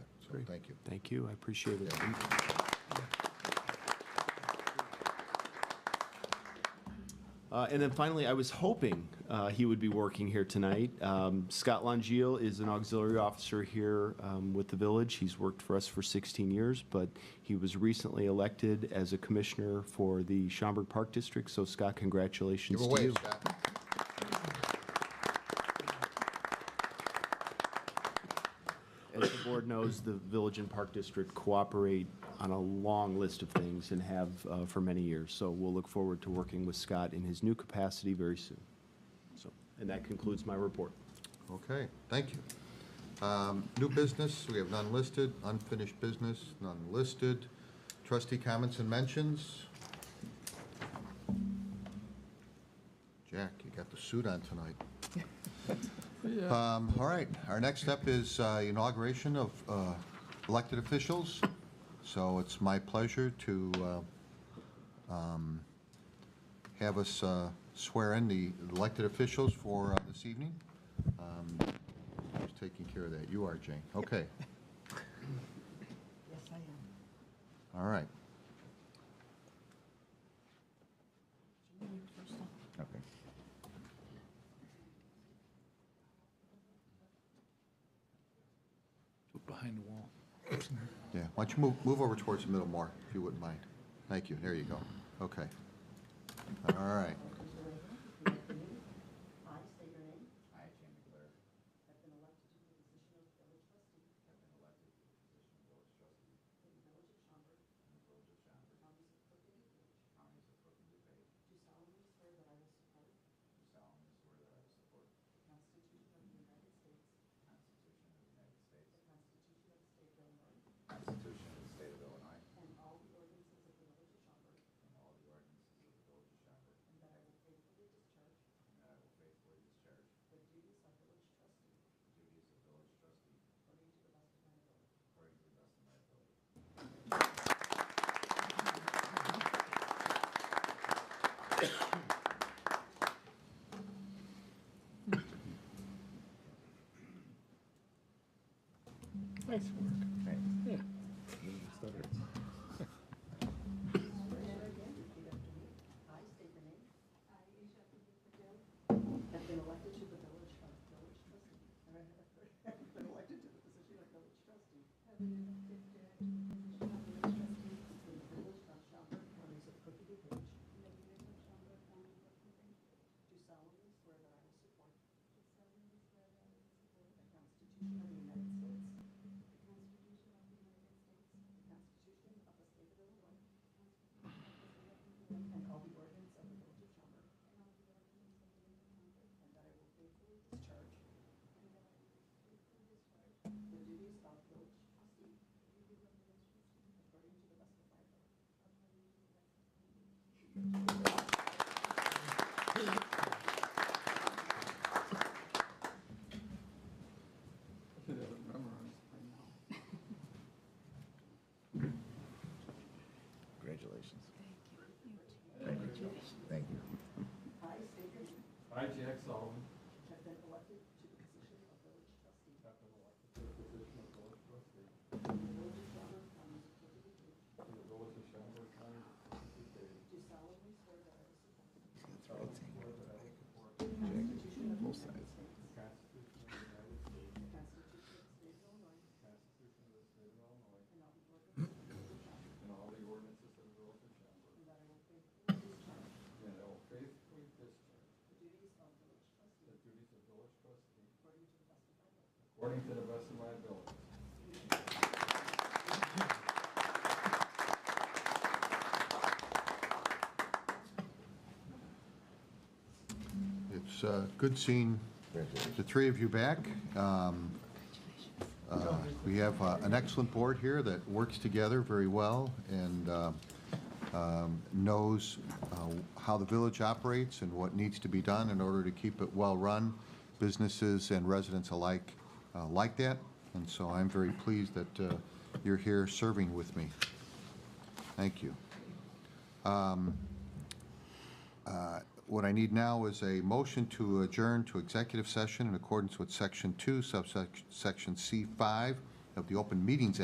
So thank you. Thank you, I appreciate it. Uh, And then finally, I was hoping uh, he would be working here tonight. Um, Scott Longeal is an auxiliary officer here um, with the village. He's worked for us for 16 years, but he was recently elected as a commissioner for the Schaumburg Park District. So Scott, Give congratulations a to you. wave, Scott. As the board knows, the Village and Park District cooperate on a long list of things and have uh, for many years. So we'll look forward to working with Scott in his new capacity very soon. So, and that concludes my report. Okay, thank you. Um, New business, we have none listed. Unfinished business, none listed. Trustee comments and mentions? Jack, you got the suit on tonight. Um, All right, our next step is uh, inauguration of uh, elected officials. So it's my pleasure to uh, um, have us uh, swear in the elected officials for uh, this evening. Um, Who's taking care of that? You are, Jane. Okay, Yes, I am. all right. Okay. Behind the wall. Yeah, why don't you move, move over towards the middle more, if you wouldn't mind. Thank you, there you go. Okay. All right. I state your name. I, Jane McGlure. Have been elected to the position of village trustee. Nice work. Yeah. I state your name. I, Asia Patel. Have been elected to the village, uh, village trustee. And I have been elected to the position of village trustee. Have been elected to the position of village trustee. In the village of Schaumburg, counties of Cook and DuPage. In the village of Schaumburg, counties of Cook and DuPage. Do solemnly swear that I will support. Do solemnly swear that I will support. The Constitution of the United States. The Constitution of the United States. The Constitution of the State of Illinois. And all the ordinance of the village of Schaumburg. And that I will faithfully discharge. The duties of village trustee. According to the best of my ability. Should have it memorized by now. Congratulations. Thank you. Thank you. I state your name. I, Jack Sullivan, Have been elected to the position of village trustee. have been elected to the position of village trustee of the village of Schaumburg, County of Cook and Dubuque. for the village of Schaumburg County, Kentucky State. Do solemnly swear that I will support Throw it to you. Swear that I will support the Constitution of the Both United sides. States. the Constitution of the United The States, Constitution of the State of Illinois. the Constitution of the State of Illinois, And all the ordinances of the village of Schaumburg. and all the ordinances of the village And of Schaumburg. that I will faithfully discharge And I will faithfully the discharge duties of village trustee. the duties of village trustee According to the best of my ability. according to the best of my ability. It's uh, good seeing Congratulations. the three of you back. Um, uh, We have uh, an excellent board here that works together very well and uh, um, knows uh, how the village operates and what needs to be done in order to keep it well-run. Businesses and residents alike uh, like that, and so I'm very pleased that uh, you're here serving with me. Thank you. Um, uh, What I need now is a motion to adjourn to executive session in accordance with Section 2, subsection Section C5 of the Open Meetings